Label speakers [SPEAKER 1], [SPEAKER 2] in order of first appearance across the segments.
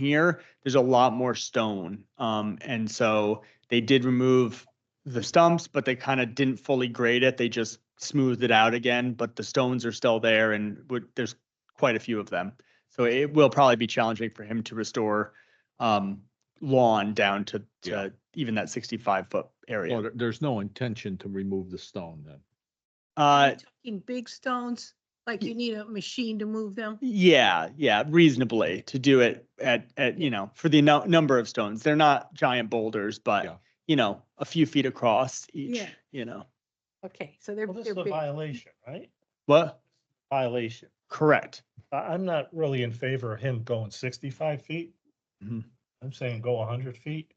[SPEAKER 1] here, there's a lot more stone. Um, and so they did remove the stumps, but they kind of didn't fully grade it. They just smoothed it out again, but the stones are still there and would, there's quite a few of them. So it will probably be challenging for him to restore, um, lawn down to,
[SPEAKER 2] Yeah.
[SPEAKER 1] to even that sixty-five foot
[SPEAKER 2] Well,
[SPEAKER 1] area.
[SPEAKER 2] there- there's no intention to remove the stone then.
[SPEAKER 1] Uh,
[SPEAKER 3] Talking big stones, like you need a machine to move them.
[SPEAKER 1] Yeah, yeah, reasonably to do it at, at, you know, for the nu- number of stones. They're not giant boulders,
[SPEAKER 2] Yeah.
[SPEAKER 1] but, you know, a few feet across each,
[SPEAKER 3] Yeah.
[SPEAKER 1] you know.
[SPEAKER 3] Okay, so they're,
[SPEAKER 4] Well, this
[SPEAKER 3] they're
[SPEAKER 4] is a
[SPEAKER 3] big.
[SPEAKER 4] violation, right?
[SPEAKER 1] What?
[SPEAKER 4] Violation.
[SPEAKER 1] Correct.
[SPEAKER 4] I, I'm not really in favor of him going sixty-five feet.
[SPEAKER 1] Mhm.
[SPEAKER 4] I'm saying go hundred feet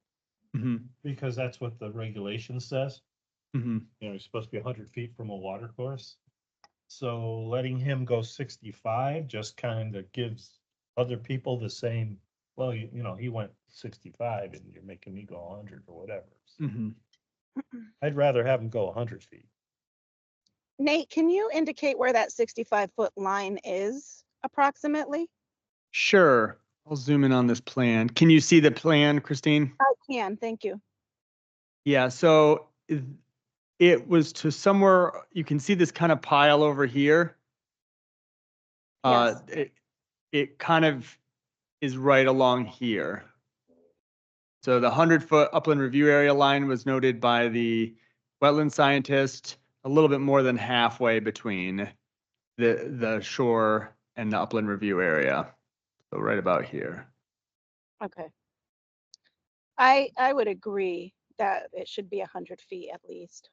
[SPEAKER 1] hmm
[SPEAKER 4] because that's what the regulation says.
[SPEAKER 1] hmm
[SPEAKER 4] You know, you're supposed to be hundred feet from a water course. So letting him go sixty-five just kind of gives other people the same, well, you, you know, he went sixty-five and you're making me go hundred or whatever.
[SPEAKER 1] hmm
[SPEAKER 4] I'd rather have him go hundred feet.
[SPEAKER 5] Nate, can you indicate where that sixty-five foot line is approximately?
[SPEAKER 1] Sure. I'll zoom in on this plan. Can you see the plan, Christine?
[SPEAKER 5] I can, thank you.
[SPEAKER 1] Yeah, so i- it was to somewhere, you can see this kind of pile over here. Uh, it, it kind of is right along here. So the hundred foot upland review area line was noted by the wetland scientist a little bit more than halfway between the, the shore and the upland review area. So right about here.
[SPEAKER 5] Okay. I, I would agree that it should be hundred feet at least.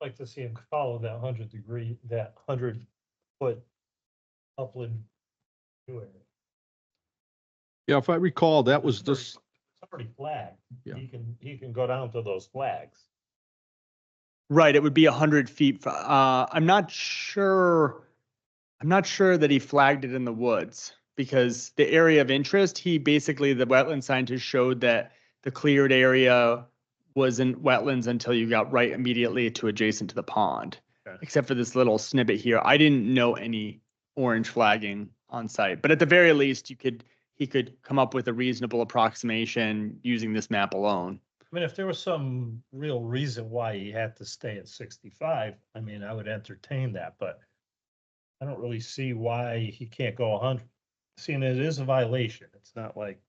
[SPEAKER 4] like to see him follow that hundred degree, that hundred foot upland. view area.
[SPEAKER 2] Yeah, if I recall, that was this,
[SPEAKER 4] It's already flagged.
[SPEAKER 2] Yeah.
[SPEAKER 4] He can, he can go down to those flags.
[SPEAKER 1] Right, it would be a hundred feet. fr- Uh, I'm not sure. I'm not sure that he flagged it in the woods because the area of interest, he basically, the wetland scientist showed that the cleared area wasn't wetlands until you got right immediately to adjacent to the pond.
[SPEAKER 4] Okay.
[SPEAKER 1] Except for this little snippet here. I didn't know any orange flagging on site, but at the very least, you could, he could come up with a reasonable approximation using this map alone.
[SPEAKER 4] I mean, if there was some real reason why he had to stay at sixty-five, I mean, I would entertain that, but I don't really see why he can't go hundred, seeing it is a violation. It's not like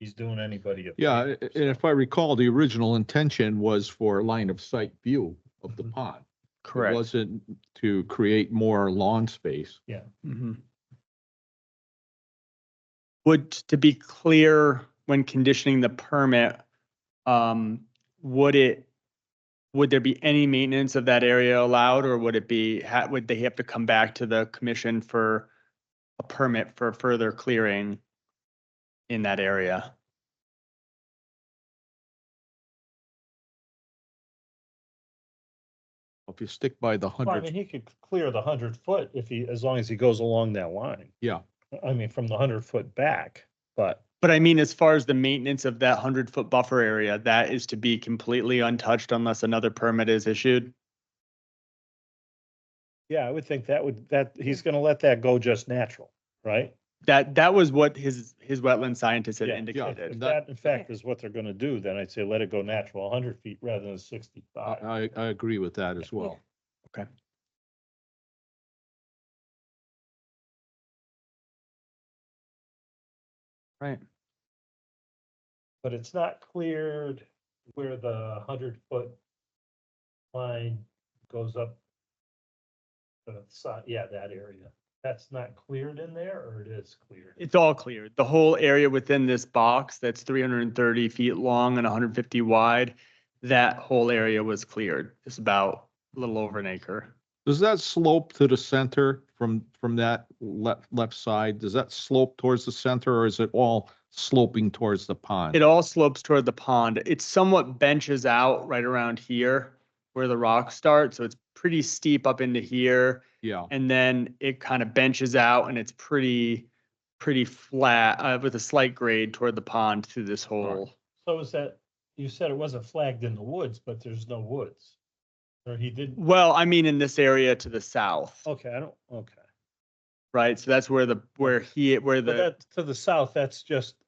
[SPEAKER 4] he's doing anybody. a
[SPEAKER 2] yeah, a-
[SPEAKER 4] favor,
[SPEAKER 2] and if I recall, the original intention was for line of sight view of the
[SPEAKER 4] Mhm.
[SPEAKER 2] pond. It wasn't to create more lawn space.
[SPEAKER 1] Mhm. Would, to be clear, when conditioning the permit, um, would it, would there be any maintenance of that area allowed, or would it be, ha- would they have to come back to the commission for a permit for further clearing in that area?
[SPEAKER 2] If you stick by the
[SPEAKER 4] Well, I mean,
[SPEAKER 2] hundred,
[SPEAKER 4] he could clear the hundred foot if he, as long as he goes along that line.
[SPEAKER 2] Yeah.
[SPEAKER 4] I mean, from the hundred foot back, but
[SPEAKER 1] But I mean, as far as the maintenance of that hundred-foot buffer area, that is to be completely untouched unless another permit is issued?
[SPEAKER 4] yeah, I would think that would, that, he's gonna let that go just natural, right?
[SPEAKER 1] That, that was what his, his wetland scientist had
[SPEAKER 4] Yeah, yeah,
[SPEAKER 1] indicated.
[SPEAKER 4] If
[SPEAKER 2] that-
[SPEAKER 4] that in fact is what they're gonna do, then I'd say let it go natural, hundred feet rather than sixty-five.
[SPEAKER 2] I, I, I agree with that as well.
[SPEAKER 1] Right.
[SPEAKER 4] But it's not cleared where the hundred foot line goes up. to The side, yeah, that area. That's not cleared in there or it is cleared?
[SPEAKER 1] It's all cleared. The whole area within this box that's three hundred and thirty feet long and hundred and fifty wide, that whole area was cleared. It's about a little over an acre.
[SPEAKER 2] Does that slope to the center from, from that left, left side? Does that slope towards the center or is it all sloping towards the pond?
[SPEAKER 1] It all slopes toward the pond. It somewhat benches out right around here where the rocks start, so it's pretty steep up into here.
[SPEAKER 2] Yeah,
[SPEAKER 1] And then it kind of benches out and it's pretty, pretty flat, uh, with a slight grade toward the pond through this whole.
[SPEAKER 4] So is that, you said it wasn't flagged in the woods, but there's no woods? Or he didn't,
[SPEAKER 1] Well, I mean, in this area to the south,
[SPEAKER 4] okay, I don't, okay.
[SPEAKER 1] right? So that's where the, where he, where
[SPEAKER 4] But
[SPEAKER 1] the.
[SPEAKER 4] that, to the south, that's just